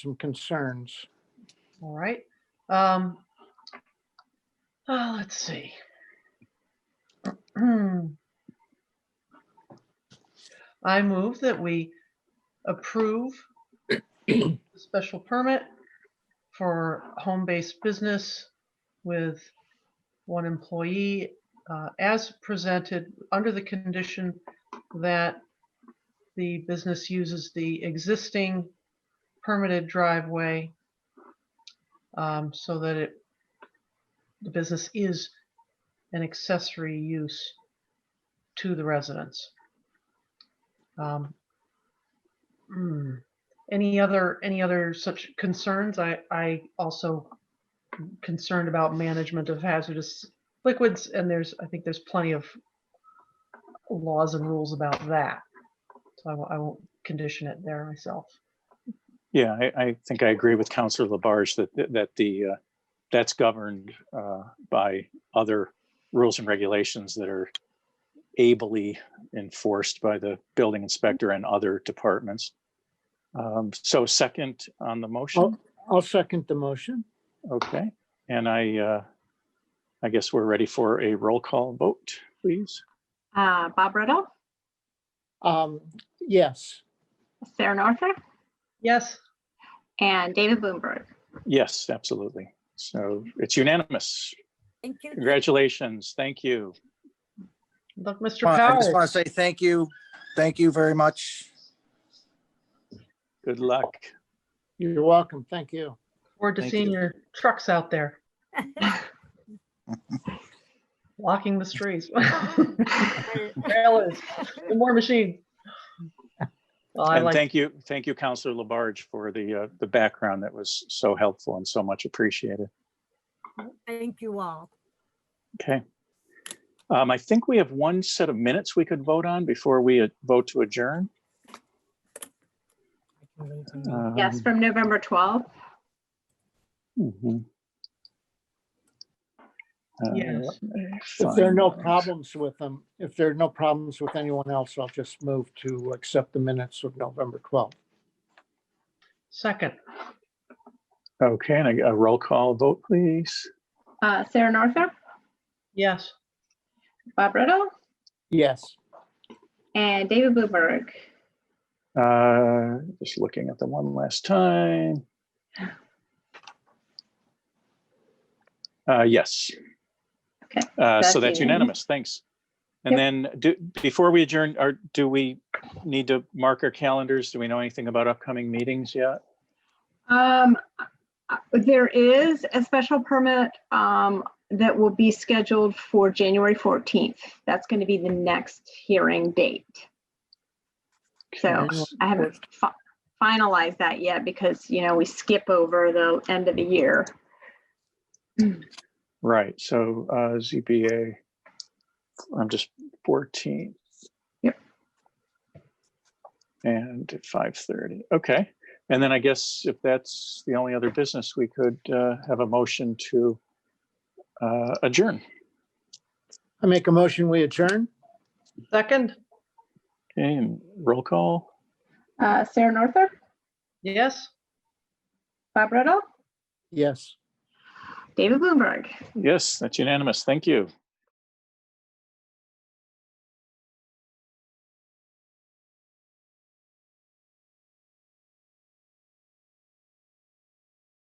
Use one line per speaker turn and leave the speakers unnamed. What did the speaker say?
some concerns.
All right. Um, uh, let's see. I move that we approve the special permit for home-based business with one employee uh, as presented under the condition that the business uses the existing permitted driveway um, so that it, the business is an accessory use to the residents. Um, hmm, Any other, any other such concerns? I, I also concerned about management of hazardous liquids, and there's, I think there's plenty of laws and rules about that. So I won't, I won't condition it there myself.
Yeah, I, I think I agree with Counselor Labarge that, that- that the, uh, that's governed uh, by other rules and regulations that are ably enforced by the building inspector and other departments. Um, So second on the motion,
I'll second the motion.
okay, and I, uh, I guess we're ready for a roll call vote, please.
Uh, Bob Riddle,
Um, yes,
Sarah Norther,
Yes,
and David Bloomberg.
Yes, absolutely. So it's unanimous.
Thank you.
Congratulations. Thank you.
look, Mr.
Well, I
Powers.
just want to say thank you. Thank you very much.
Good luck.
you're welcome. Thank you.
Forward to
Thank
seeing
you.
your trucks out there. Walking the streets. Trailers, the more machine. Well, I
And
like,
thank you, thank you, Counselor Labarge, for the, uh, the background that was so helpful and so much appreciated.
Thank you all.
Okay. Um, I think we have one set of minutes we could vote on before we uh, vote to adjourn.
Yes,
Um,
from November 12th.
mhm. Uh,
Yes.
If there are no
fine.
problems with them, if there are no problems with anyone else, I'll just move to accept the minutes of November 12th.
second,
Okay, and a a roll call vote, please.
Uh, Sarah Norther,
yes,
Bob Riddle,
Yes,
and David Bloomberg.
Uh, Just looking at them one last time. Uh, Yes.
Okay,
Uh,
that's
So that's
unanimous.
unanimous. Thanks. And
Yep.
then do, before we adjourn, or do we need to mark our calendars? Do we know anything about upcoming meetings yet?
Um, uh, there is a special permit, um, that will be scheduled for January 14th. That's going to be the next hearing date. So I haven't fi- finalized that yet because, you know, we skip over the end of the year.
Right, so uh, ZBA, I'm just 14.
Yep.
And at 5:30, okay. And then I guess if that's the only other business, we could uh, have a motion to uh, adjourn.
I make a motion, we adjourn.
second,
Okay, and roll call,
Uh, Sarah Norther,
yes.
Bob Riddle,
Yes.
David Bloomberg.
yes, that's unanimous, thank you.